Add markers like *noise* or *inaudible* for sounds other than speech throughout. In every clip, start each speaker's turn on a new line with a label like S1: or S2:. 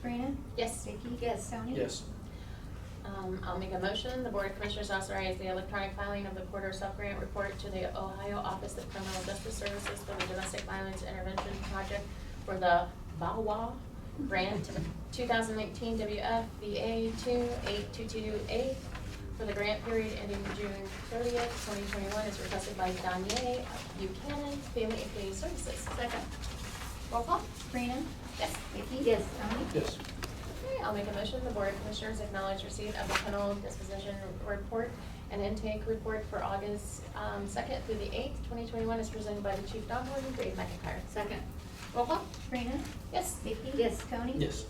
S1: Kristen?
S2: Yes.
S1: Vicky? Yes. Tony?
S3: Yes.
S2: Um, I'll make a motion. The Board of Commissioners authorize the electronic filing of the quarter sub-grant report to the Ohio Office of Criminal Justice Services for the Domestic Violence Intervention Project for the VAWA Grant 2019 WFVA 2822A for the grant period ending June 30th, 2021, is requested by Danye Buchanan, Family and Community Services.
S1: Second.
S2: Roll call?
S1: Sabrina?
S2: Yes.
S1: Vicky? Yes. Tony?
S3: Yes.
S2: Okay, I'll make a motion, the Board of Commissioners acknowledge receipt of the kennel disposition report and intake report for August um, second through the eighth, twenty twenty-one, is presented by the Chief Dog Warden, Dave McIntyre.
S1: Second.
S2: Roll call?
S1: Sabrina?
S2: Yes.
S1: Vicky? Yes. Tony?
S3: Yes.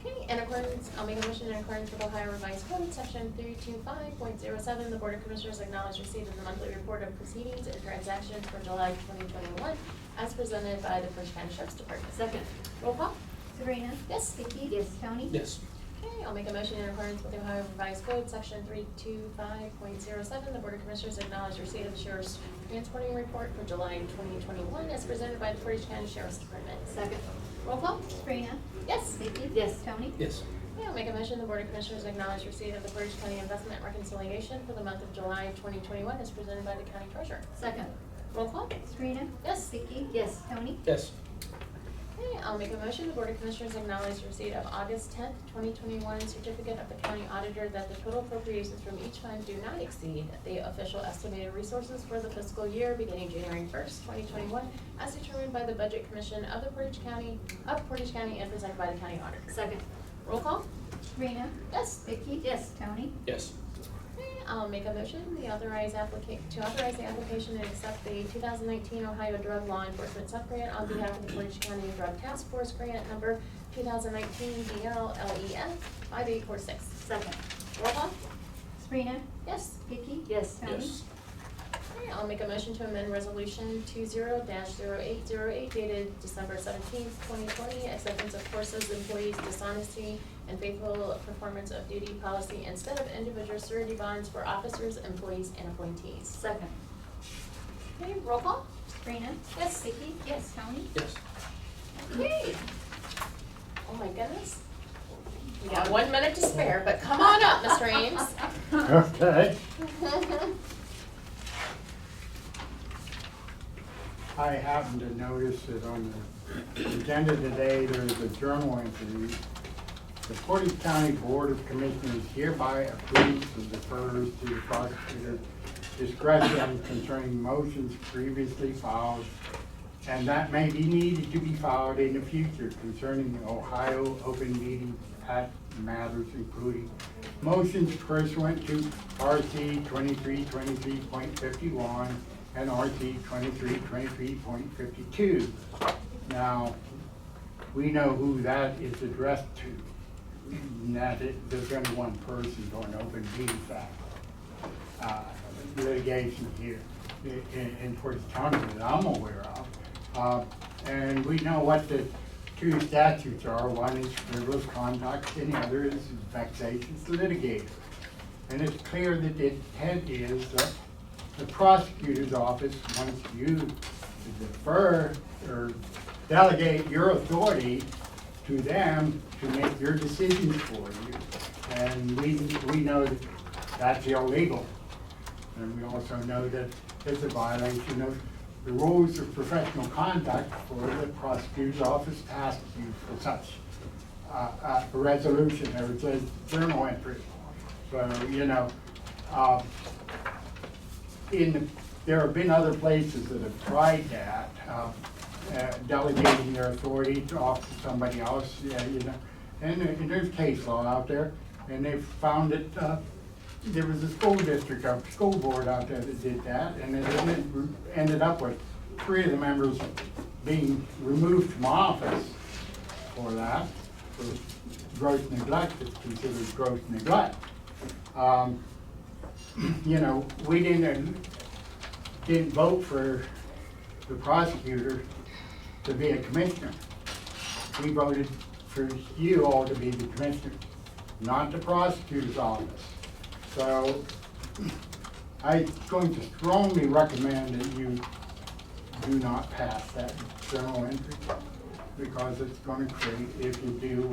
S2: Okay, in accordance, I'll make a motion in accordance with Ohio Revised Code, section three two five point zero seven, the Board of Commissioners acknowledge receipt of the monthly report of proceedings and transactions for July twenty twenty-one, as presented by the First County Sheriff's Department.
S1: Second.
S2: Roll call?
S1: Sabrina?
S2: Yes.
S1: Vicky? Yes. Tony?
S3: Yes.
S2: Okay, I'll make a motion in accordance with the Ohio Revised Code, section three two five point zero seven. The Board of Commissioners acknowledge receipt of the sheriff's transporting report for July twenty twenty-one as presented by the Portage County Sheriff's Department.
S1: Second.
S2: Roll call?
S1: Sabrina?
S2: Yes.
S1: Vicky? Yes. Tony?
S3: Yes.
S2: Okay, I'll make a motion, the Board of Commissioners acknowledge receipt of the Portage County Investment Reconciliation for the month of July twenty twenty-one as presented by the County Treasurer.
S1: Second.
S2: Roll call?
S1: Sabrina?
S2: Yes.
S1: Vicky? Yes. Tony?
S3: Yes.
S2: Okay, I'll make a motion, the Board of Commissioners acknowledge receipt of August tenth, twenty twenty-one certificate of the county auditor that the total appropriations from each fund do not exceed the official estimated resources for the fiscal year beginning January first, twenty twenty-one, as determined by the Budget Commission of the Portage County, of Portage County and presented by the county auditor.
S1: Second.
S2: Roll call?
S1: Sabrina?
S2: Yes.
S1: Vicky? Yes. Tony?
S3: Yes.
S2: Okay, I'll make a motion, the authorize applica, to authorize the application and accept the two thousand nineteen Ohio Drug Law Enforcement Subgrant on behalf of the Portage County Drug Task Force Grant Number two thousand nineteen DLLEF E five eight four six.
S1: Second.
S2: Roll call?
S1: Sabrina?
S2: Yes.
S1: Vicky? Yes. Tony?
S3: Yes.
S2: Okay, I'll make a motion to amend resolution two zero dash zero eight zero eight dated December seventeenth, twenty twenty, acceptance of forces, employees dishonesty, and faithful performance of duty policy instead of individual surety bonds for officers, employees, and appointees.
S1: Second.
S2: Okay, roll call?
S1: Sabrina?
S2: Yes.
S1: Vicky? Yes. Tony?
S3: Yes.
S2: Okay. Oh my goodness. We got one minute to spare, but come on up, Mr.
S1: *laughs*
S2: Ames.
S4: Okay. I happened to notice that on the agenda today, there's a journal entry. The Portage County Board of Commissioners hereby approves and defers to the prosecutor's discretion concerning motions previously filed and that may be needed to be filed in the future concerning the Ohio Open Meeting Act matters, including motions pursuant to RC twenty-three twenty-three point fifty-one and RC twenty-three twenty-three point fifty-two. Now, we know who that is addressed to. And That it, there's only one person on Open Meetings Act uh, litigation here i- in, in Portage County that I'm aware of. Uh, And we know what the two statutes are, one is frivolous conduct and the other is vexatious litigator. And it's clear that the intent is that the prosecutor's office wants you to defer or delegate your authority to them to make your decisions for you. And we, we know that that's illegal. And we also know that it's a violation of the rules of professional conduct for the prosecutor's office to ask you for such uh, uh, a resolution, or it's a journal entry. So, you know, uh, in, the- there have been other places that have tried that, uh, uh, delegating their authority to off to somebody else, yeah, you know. And there- and there's case law out there, and they've found that, uh, there was a school district, a school board out there that did that, and it ended- ended up with three of the members being removed from office for that, for gross neglect, it's considered gross neglect. Um, you know, we didn't, uh, didn't vote for the prosecutor to be a commissioner. We voted for you all to be the commissioner, not the prosecutor's office. So I'm going to strongly recommend that you do not pass that journal entry because it's gonna create, if you do,